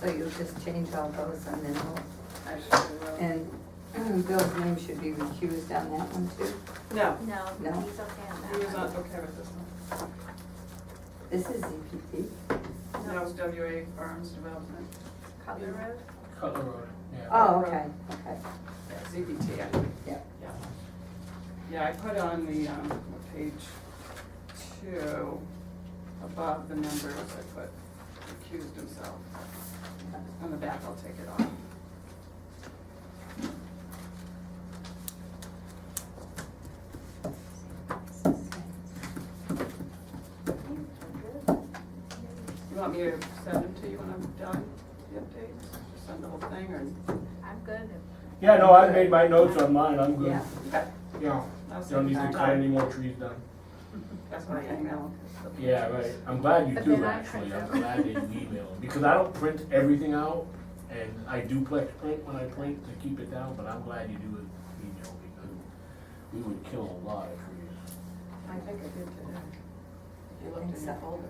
So you'll just change all those and then, I sure will. and Bill's name should be recused on that one too. No, No, he's okay No. on that he was one. not okay with this one. This is ZPT. That was WA Farms Development, Cutler Road? Cutler Road, yeah. Oh, okay, okay. yeah, ZBT, I think. Yeah. Yeah. Yeah, I put on the, um, what page two, above the numbers, I put accused himself. On the back, I'll take it off. You want me to send them to you when I'm done, the updates, Just send the whole thing, or? I'm good. Yeah, no, I made my notes on mine, I'm good. Yeah. Okay, Yeah. I'll Don't send need it to to cut any you. more trees down. That's my email. Yeah, right, I'm glad you But do, then I actually, print I'm them. glad that you email, because I don't print everything out, and I do plex print when I print to keep it down, but I'm glad you do it email, because we would kill a lot of trees. I think I did today. If you looked in your folder.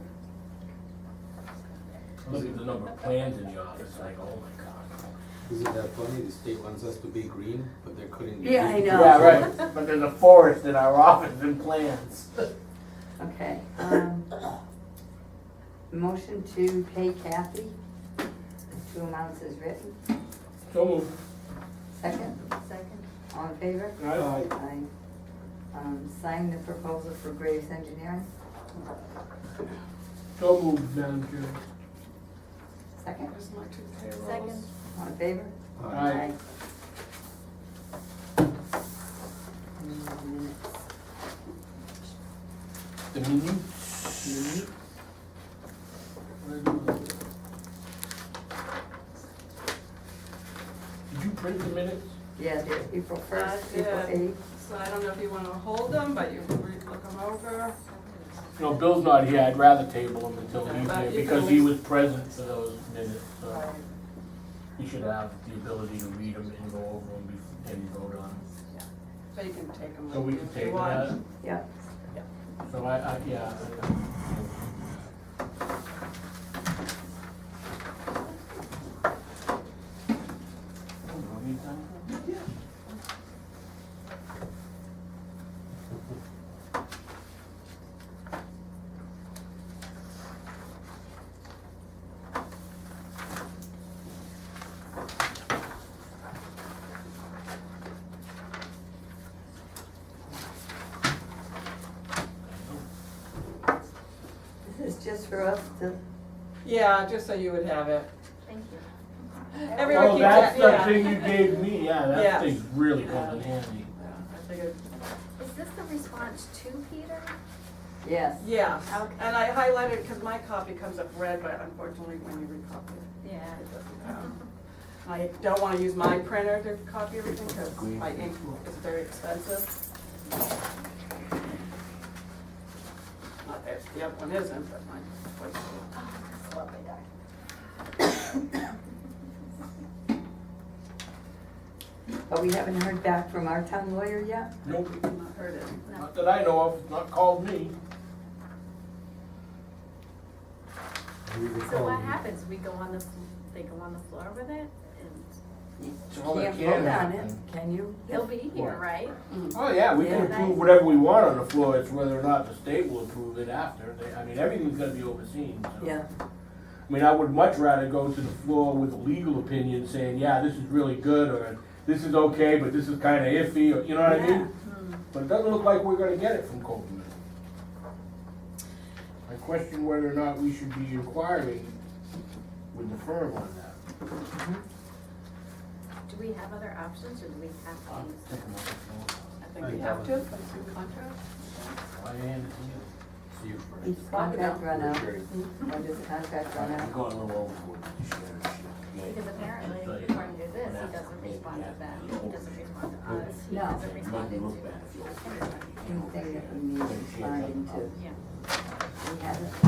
Look at the number of plans in the office, like, oh my god. Isn't that uh, funny? The state wants us to be green, but they're cutting. the Yeah, I trees. know. Yeah, right, but there's a forest in our office and plans. Okay, um, motion to pay Kathy the two amounts as written. So moved. Second, Second? all in favor? Aye. Aye. Um, sign the proposal for Graves Engineering. So moved, Madam Chair. Second, There's my two payrolls. Second. all in favor? Aye. Mm, minutes. The minutes. Did you print the minutes? Yeah, there's April first, I April did. eighth. So I don't know if you wanna hold them, but you can re- look them over. No, Bill's not here, I'd rather table them until Okay, he's but here, you because can he at was present for those minutes, so Right. he should have the ability to read them and go over them bef- and vote on them. So you can take them. So we with can you if you table want. that, Yeah, so I, I, yeah. this is just for us to, Yeah, just so you would have it. Thank you. Everyone Oh, keeps that's that, the yeah. thing you gave me, yeah, Yeah. that thing really comes in handy. Yeah, I figured, Is this the response to Peter? yes. yeah, Okay. and I highlighted, because my copy comes up red, but unfortunately, when you recopy it, Yeah. it doesn't. um, I don't wanna use my printer to copy everything, because my ink is very expensive. Not that the other one isn't, but mine was. Oh, Lovely guy. But we haven't heard back from our town lawyer yet? Nope, I've not heard it. not that I know of, not called me. We were So what calling- happens? We go on the, f- they go on the floor with it and You all that Can't can vote on it, happen. can you? he'll be here, What? right? Oh, yeah, we can Yeah. approve whatever we want on the floor, it's whether or not the state will approve it after, They- I mean, everything's gonna be overseen, so. Yeah, I mean, I would much rather go to the floor with a legal opinion saying, yeah, this is really good, or this is okay, but this is kinda iffy, or, you know what I Yeah. mean? But it doesn't look like we're gonna get it from Copeland. I question whether or not we should be inquiring with the firm on that. Do we have other options or do we have I'll to use? take a look at I those. Oh, think we have to, for the two contracts. Why hand it to See you, Frank. his contract run out, Great. when does the contract you? run I'm out? going a little overboard with this shit, shit. Because apparently, according to this, he doesn't respond to them, he doesn't respond to us, he No. doesn't respond to. Anything that we need to find into, Yeah. we haven't,